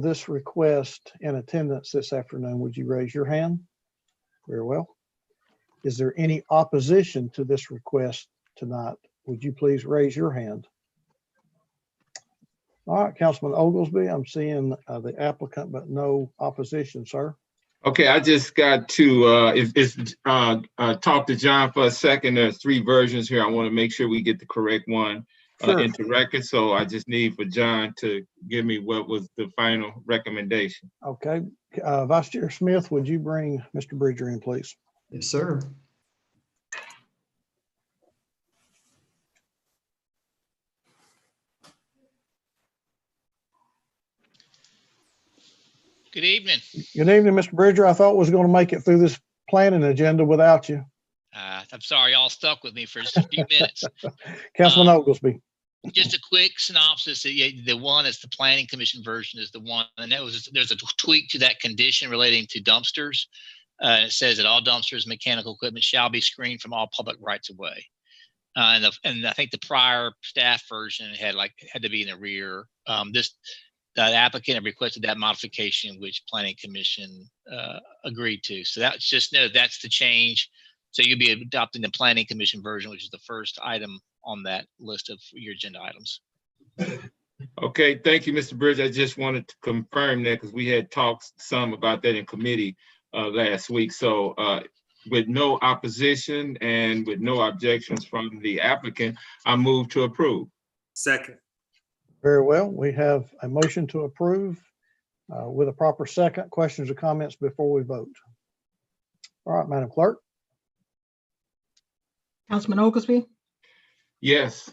this request in attendance this afternoon, would you raise your hand? Very well. Is there any opposition to this request tonight? Would you please raise your hand? All right, Councilman Oglesby, I'm seeing uh, the applicant, but no opposition, sir. Okay, I just got to, uh, if, if, uh, uh, talk to John for a second. There's three versions here. I want to make sure we get the correct one uh, Sure. into record. So I just need for John to give me what was the final recommendation. Okay, uh, Vice Chair Smith, would you bring Mr. Bridger in, please? Yes, sir. Good evening. Good evening, Mr. Bridger. I thought was going to make it through this planning agenda without you. Uh, I'm sorry y'all stuck with me for just a few minutes. Councilman Oglesby, Just a quick synopsis. uh, The the one that's the planning commission version is the one, and that was, there's a tweak to that condition relating to dumpsters. Uh, it says that all dumpsters, and mechanical equipment shall be screened from all public rights of way. Uh, and, the- and I think the prior staff version had like, had to be in the rear. Um, this, the applicant had requested that modification, which planning commission, uh, agreed to. So that's just, no, that's the change. So you'll be adopting the planning commission version, which is the first item on that list of your agenda items. Okay, thank you, Mr. Bridge. I just wanted to confirm that because we had talked some about that in committee uh, last week. So uh, with no opposition and with no objections from the applicant, I move to approve. Second, very well. We have a motion to approve uh, with a proper second. Questions or comments before we vote? All right, Madam Clerk? Councilman Oglesby, Yes.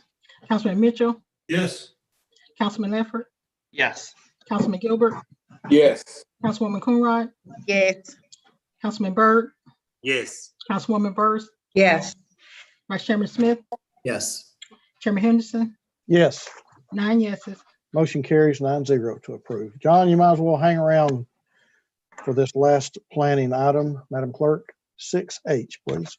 Councilman Mitchell, yes. Councilman Ledford, Yes. Councilman Gilbert, Yes. Councilwoman Coonrod, Yes. Councilman Byrd, Yes. Councilwoman Byrd, Yes. Vice Chairman Smith, Yes. Chairman Henderson, Yes, nine yeses. motion carries nine zero to approve. John, you might as well hang around for this last planning item. Madam Clerk, 6H, please.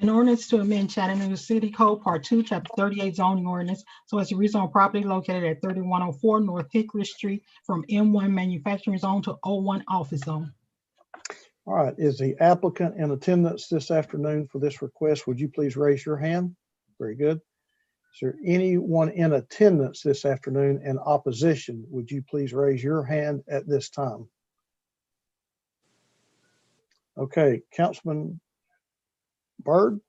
An ordinance to amend Chattanooga City Code Part Two, Chapter Thirty-eight zoning ordinance, so as to rezone property located at thirty-one oh four North Hickory Street from M one manufacturing zone to O one office zone. All right, is the applicant in attendance this afternoon for this request? Would you please raise your hand? Very good. Is there anyone in attendance this afternoon in opposition? Would you please raise your hand at this time? Okay, Councilman Byrd,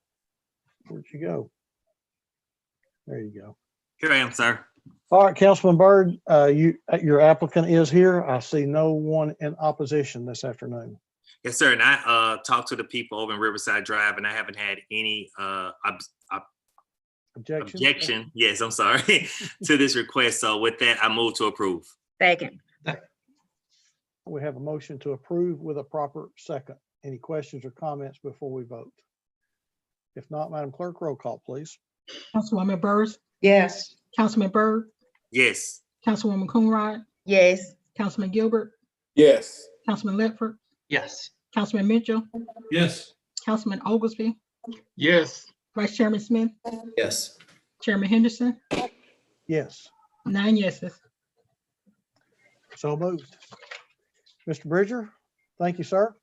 where'd you go? There you go. Here I am, sir. All right, Councilman Byrd, uh, you, uh, your applicant is here. I see no one in opposition this afternoon. Yes, sir. And I uh talked to the people over in Riverside Drive and I haven't had any uh ob- Objection? objection. Yes, I'm sorry, to this request. So with that, I move to approve. Second. We have a motion to approve with a proper second. Any questions or comments before we vote? If not, Madam Clerk, roll call, please. Councilwoman Byrd, Yes. Councilman Byrd, Yes. Councilwoman Coonrod, Yes. Councilman Gilbert, Yes. Councilman Ledford, Yes. Councilman Mitchell, Yes. Councilman Oglesby, Yes. Vice Chairman Smith, Yes. Chairman Henderson, Yes, nine yeses. so moved. Mr. Bridger, thank you, sir.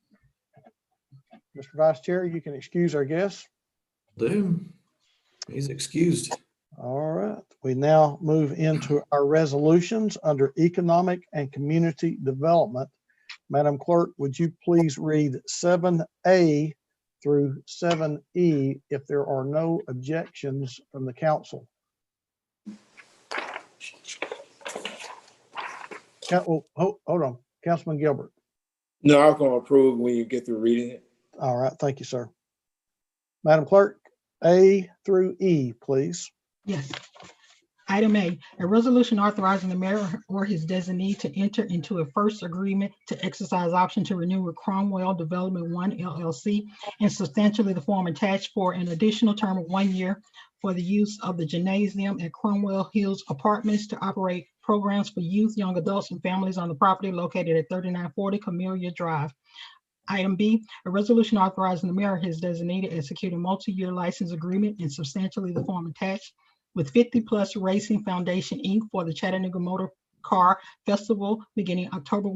Mr. Vice Chair, you can excuse our guests. Do. He's excused. All right, we now move into our resolutions under economic and community development. Madam Clerk, would you please read seven A through seven E if there are no objections from the council? Coun- oh, ho- Hold on, Councilman Gilbert. No, I'm gonna approve when you get through reading it. All right, thank you, sir. Madam Clerk, A through E, please. Yes. Item A, a resolution authorizing the mayor or his designee to enter into a first agreement to exercise option to renew with Cromwell Development One LLC in substantially the form attached for an additional term of one year for the use of the gymnasium at Cromwell Hills Apartments to operate programs for youth, young adults, and families on the property located at thirty-nine forty Camellia Drive. Item B, a resolution authorizing the mayor or his designee to execute a multi-year license agreement in substantially the form attached with 50 Plus Racing Foundation, Inc. for the Chattanooga Motor Car Festival beginning October